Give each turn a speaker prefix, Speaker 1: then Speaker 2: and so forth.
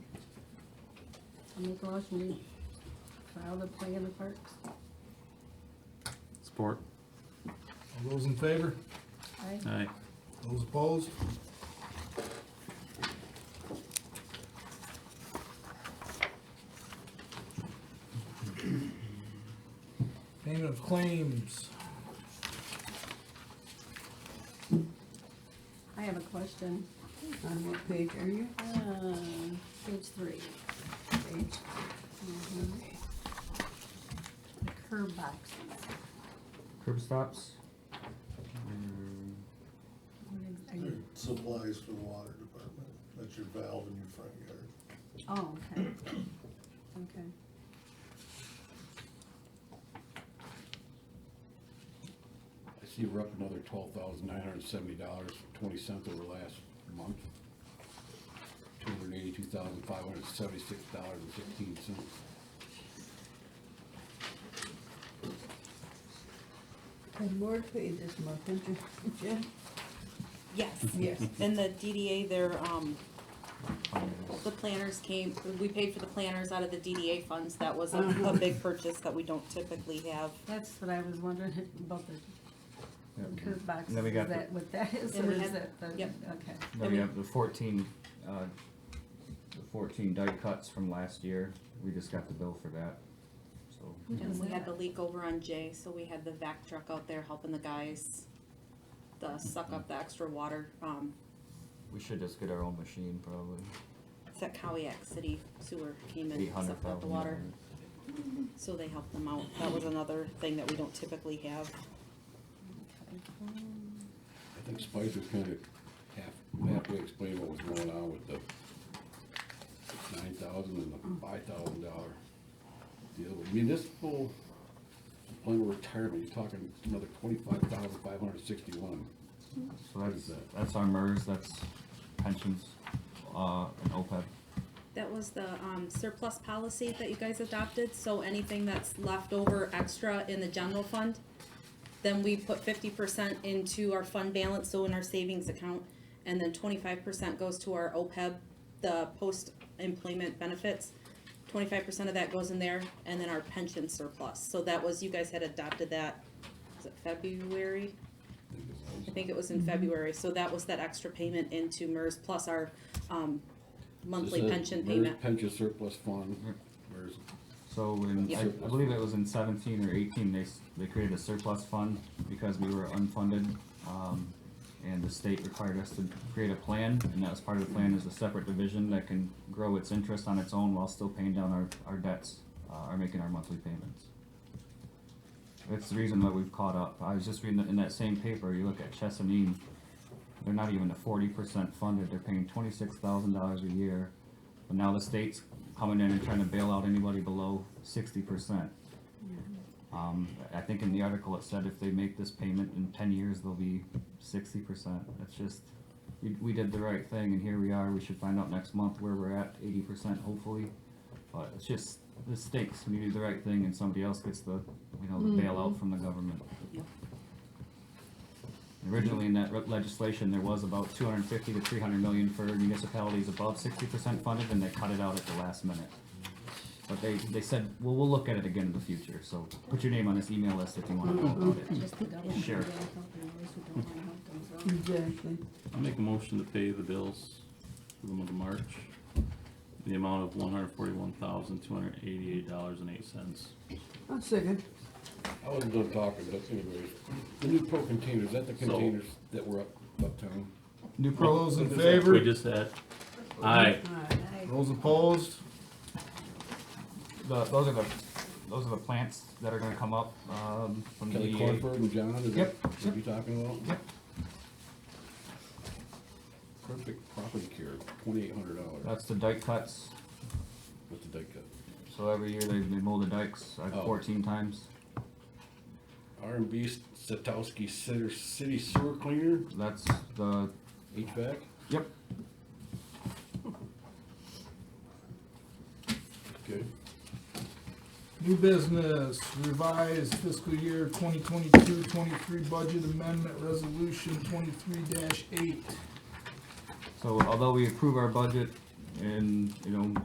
Speaker 1: Make a motion, we file the plan in the parks.
Speaker 2: Support.
Speaker 3: All those in favor?
Speaker 1: Aye.
Speaker 2: Aye.
Speaker 3: Those opposed? Payment of claims.
Speaker 1: I have a question.
Speaker 4: On what page are you?
Speaker 1: Uh, Page three.
Speaker 4: Page?
Speaker 1: Mhm. The curb boxes.
Speaker 2: Curb stops.
Speaker 1: What is- are
Speaker 5: They're
Speaker 1: you-
Speaker 5: Supplies for the water department, that's your valve in your front yard.
Speaker 1: Oh, okay. Okay.
Speaker 6: I see we're up another twelve thousand nine hundred and seventy dollars, twenty cents over last month. Two hundred and eighty-two thousand five hundred and seventy-six dollars and fifteen cents.
Speaker 4: Had more paid this month, didn't you? Jen?
Speaker 7: Yes,
Speaker 1: Mm-hmm.
Speaker 4: Yes.
Speaker 7: and the DDA, their, um, the planners came, we paid for the planners out of the DDA funds, that was a, a big purchase that we don't typically have.
Speaker 1: That's what I was wondering about the curb boxes.
Speaker 2: Then we got
Speaker 1: Is
Speaker 2: the-
Speaker 1: that what that is,
Speaker 7: Then
Speaker 1: or
Speaker 7: we
Speaker 1: is
Speaker 7: had-
Speaker 1: that the?
Speaker 7: yep.
Speaker 1: Okay.
Speaker 2: Then we have the fourteen, uh, the fourteen die cuts from last year. We just got the bill for that, so.
Speaker 1: Mm-hmm.
Speaker 7: And we had the leak over on Jay, so we had the vac truck out there helping the guys, uh, suck up the extra water, um,
Speaker 2: We should just get our own machine probably.
Speaker 7: it's that Cowayak City Sewer came and
Speaker 2: Eight hundred
Speaker 7: sucked up the
Speaker 2: thousand.
Speaker 7: water, so they helped them out, that was another thing that we don't typically have.
Speaker 6: I think Spicer's kind of half, halfway explained what was going on with the nine thousand and the five thousand dollar deal. Municipal plan of retirement, you're talking another twenty-five thousand five hundred and sixty-one.
Speaker 2: So that's,
Speaker 6: What is that?
Speaker 2: that's our MERS, that's pensions, uh, and OPEB.
Speaker 7: That was the um, surplus policy that you guys adopted, so anything that's left over extra in the general fund, then we put fifty percent into our fund balance, so in our savings account, and then twenty-five percent goes to our OPEB, the post-employment benefits. Twenty-five percent of that goes in there, and then our pension surplus, so that was, you guys had adopted that, was it February?
Speaker 6: I think it was.
Speaker 7: I think it was in February, so that was that extra payment into MERS plus our um, monthly
Speaker 6: This is
Speaker 7: pension
Speaker 6: MERS
Speaker 7: payment.
Speaker 6: Pension surplus fund, MERS
Speaker 2: So in, I, I
Speaker 6: Surplus.
Speaker 2: believe it was in seventeen or eighteen, they, s- they created a surplus fund because we were unfunded. Um, and the state required us to create a plan, and that was part of the plan is a separate division that can grow its interest on its own while still paying down our, our debts, uh, or making our monthly payments. That's the reason that we've caught up. I was just reading in that same paper, you look at Chesapeake, they're not even a forty percent funded, they're paying twenty-six thousand dollars a year. But now the state's coming in and trying to bail out anybody below sixty percent. Um, I I think in the article it said if they make this payment in ten years, they'll be sixty percent. That's just, we, we did the right thing and here we are. We should find out next month where we're at, eighty percent hopefully. But it's just, the stakes, when you do the right thing and somebody else gets the, you know, the bailout from the government.
Speaker 7: Yep.
Speaker 2: Originally in that re- legislation, there was about two hundred and fifty to three hundred million for municipalities above sixty percent funded and they cut it out at the last minute. But they, they said, well, we'll look at it again in the future, so put your name on this email list if you wanna know about it.
Speaker 1: Just the government.
Speaker 2: Sure.
Speaker 1: they don't help them, those who don't wanna help themselves.
Speaker 4: Exactly.
Speaker 8: I'll make a motion to pay the bills for the month of March, in the amount of one hundred forty-one thousand, two hundred eighty-eight dollars and eight cents.
Speaker 4: I'll second.
Speaker 6: I wasn't done talking, but anyways, the new pro containers, is that the
Speaker 8: So-
Speaker 6: containers that were up, uptown?
Speaker 2: New
Speaker 3: All
Speaker 2: pro,
Speaker 3: those in
Speaker 8: We
Speaker 3: favor?
Speaker 8: just had, aye,
Speaker 4: Alright.
Speaker 3: Those opposed?
Speaker 2: the, those are the, those are the plants that are gonna come up, um, from the
Speaker 6: Kelly
Speaker 2: DEA.
Speaker 6: Cornford and John, is that
Speaker 2: Yep,
Speaker 6: what you talking about?
Speaker 2: Yep.
Speaker 6: Perfect property care, twenty-eight hundred dollars,
Speaker 2: That's the dike cuts,
Speaker 6: what's the date cut?
Speaker 2: so every year they, they mow the dikes, like
Speaker 6: Oh.
Speaker 2: fourteen times.
Speaker 6: R and B Satowski Center City Sewer Cleaner,
Speaker 2: That's the,
Speaker 6: HVAC,
Speaker 2: yep,
Speaker 6: good.
Speaker 3: New business, revised fiscal year 2022-23 budget amendment resolution 23-8.
Speaker 2: so although we approve our budget and, you know,